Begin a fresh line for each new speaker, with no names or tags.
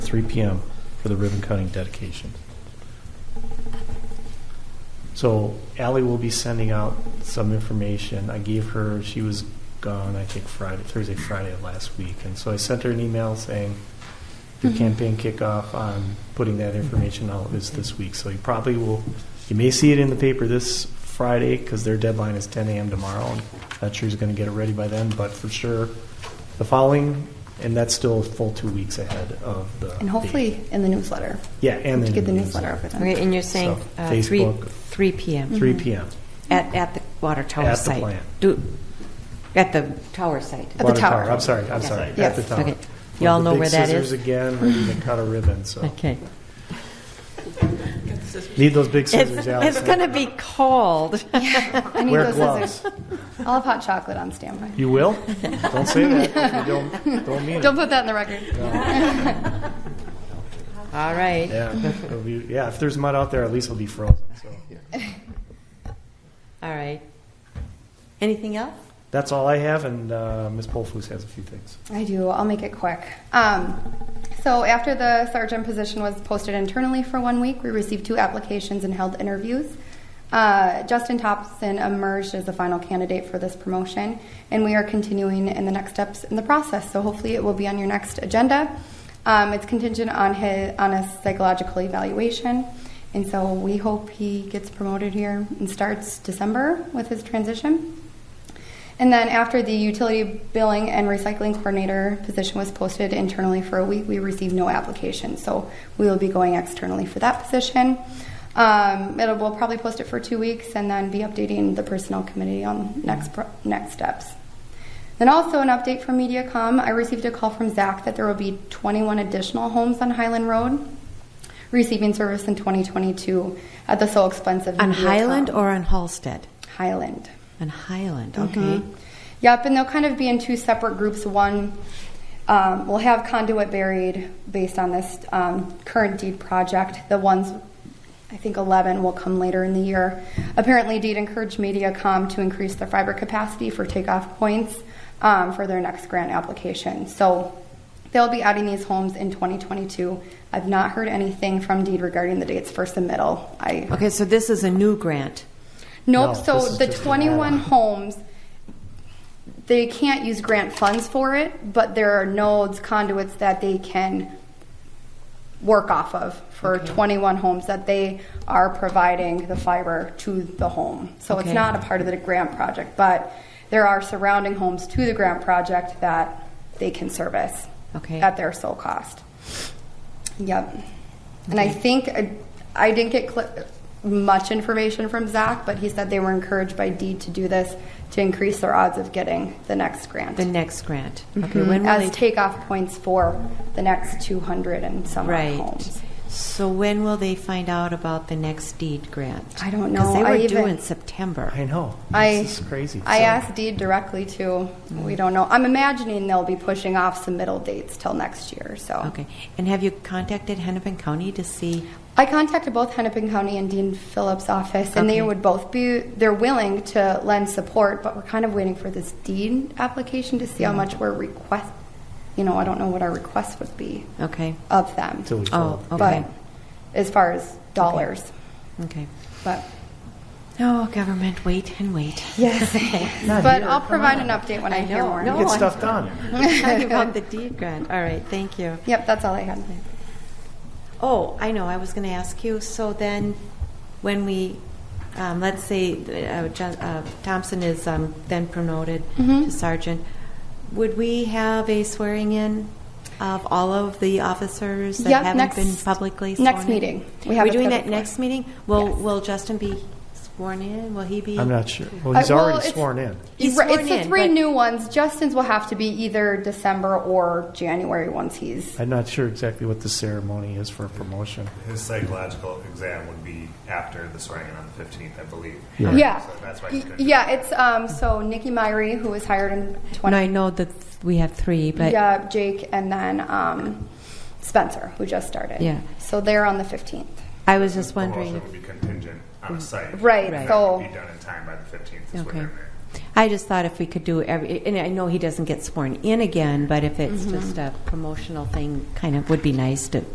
3 PM for the ribbon cutting dedication. So Ally will be sending out some information. I gave her, she was gone, I think Friday, Thursday, Friday of last week. And so I sent her an email saying the
Mhm.
campaign kickoff on putting that information out is this week. So you probably will, you may see it in the paper this Friday because their deadline is 10 AM tomorrow. and Not sure who's going to get it ready by then, but for sure the following, and that's still a full two weeks ahead of the.
And hopefully in the newsletter,
Yeah, and
to
then
get the newsletter over them.
Okay, and you're saying
So,
uh, three,
Facebook.
three PM
3
Mm-hmm.
PM.
at, at the water tower
At the
site?
plant.
Do, at the tower site?
the
Water
tower.
I'm sorry, I'm sorry, at
Yes.
the tower.
Okay. Y'all
With the
know
big
where that
scissors
is?
again, ready to cut a ribbon, so.
Okay.
Need those big scissors,
It's,
Allison.
it's going to be cold.
I need
Wear
those
gloves.
scissors. I'll have hot chocolate on standby.
You will? Don't say that, if you don't, don't mean it.
Don't put that in the record.
All right.
Yeah, it'll be- yeah, if there's mud out there, at least it'll be frozen, so.
All right. Anything else?
That's all I have, and uh, Ms. Polfus has a few things.
I do. I'll make it quick. Um, so after the sergeant position was posted internally for one week, we received two applications and held interviews. Uh, Justin Thompson emerged as the final candidate for this promotion, and we are continuing in the next steps in the process. So hopefully, it will be on your next agenda. Um, it's contingent on his on a psychological evaluation, and so we hope he gets promoted here and starts December with his transition. And then after the utility billing and recycling coordinator position was posted internally for a week, we received no applications. So we will be going externally for that position. Um, it'll, we'll probably post it for two weeks and then be updating the personnel committee on next pro- next steps. Then also an update from MediaCom. I received a call from Zach that there will be 21 additional homes on Highland Road receiving service in 2022 at the sole expense of
On
MediaCom.
Highland or on Halstead? Mm-hmm.
Highland.
On Highland, okay.
Yep, and they'll kind of be in two separate groups. One um, will have conduit buried based on this um, current deed project. The ones, I think 11 will come later in the year. Apparently, deed encouraged MediaCom to increase their fiber capacity for takeoff points um, for their next grant application. So they'll be adding these homes in 2022. I've not heard anything from deed regarding the dates for submittal. I
Okay, so this is a new grant.
No,
Nope.
this
so
is
the
just an
21
add-on.
homes, they can't use grant funds for it, but there are nodes, conduits that they can work off of for 21 homes that they are providing the fiber to the home. So
Okay.
it's not a part of the grant project, but there are surrounding homes to the grant project that they can service
Okay.
at their sole cost. Yep. And I think I, I didn't get cl- much information from Zach, but he said they were encouraged by Deed to do this to increase their odds of getting the next grant.
The next grant. Okay, when will
as
they?
takeoff points for the next 200 and some odd
Right.
homes.
So when will they find out about the next deed grant?
I don't know.
Because they
I
were due
even-
in September.
I know.
I,
This is crazy.
I
So-
asked Deed directly too.
Mm.
We don't know. I'm imagining they'll be pushing off some middle dates till next year. So
Okay. And have you contacted Hennepin County to see?
I contacted both Hennepin County and Dean Phillips' office, and
Okay.
they would both be they're willing to lend support, but we're kind of waiting for this deed application to
Mm.
see how much we're request. You know, I don't know what our request would be
Okay.
of them,
Till we
Oh,
fill it.
okay.
but as far as dollars,
Okay.
but
Oh, government, wait and wait.
yes,
Not
but
here,
I'll
come
provide
on.
an update when I, hear
know,
more.
no.
Get stuff done.
Talking about the deed grant. All right. Thank you.
Yep, that's all I had.
Oh, I know. I was going to ask you. So then, when we, um, let's say uh, John, uh, Thompson is um, then promoted
Mhm.
to sergeant, would we have a swearing in of all of the officers that
Yep,
haven't
next-
been publicly sworn
next
in?
meeting. We
We
have
are
it
doing
for
that
the-
next meeting. Will
Yes.
Will Justin be sworn in? Will he be?
I'm not sure. Well, he's
Uh, well,
already
it's-
sworn in.
He's
Right,
sworn
it's the
in,
three
but-
new ones. Justin's will have to be either December or January once he's
I'm not sure exactly what the ceremony is for promotion.
His psychological exam would be after the swearing in on the 15th, I believe.
Yeah.
Yeah.
So that's why
Y-
he couldn't.
Yeah, it's um, so Nikki Myrie, who was hired in
When
20.
I know that we have three, but
yeah, Jake, and then um, Spencer, who just started.
Yeah.
So they're on the 15th.
I was just
The
wondering.
promotion would be contingent on a site.
Right,
That
so-
would Be done in time by the 15th is what
Okay.
they're
I just thought if we could do every, and I know he doesn't get sworn in again, but if it's just a promotional thing, kind of would be nice to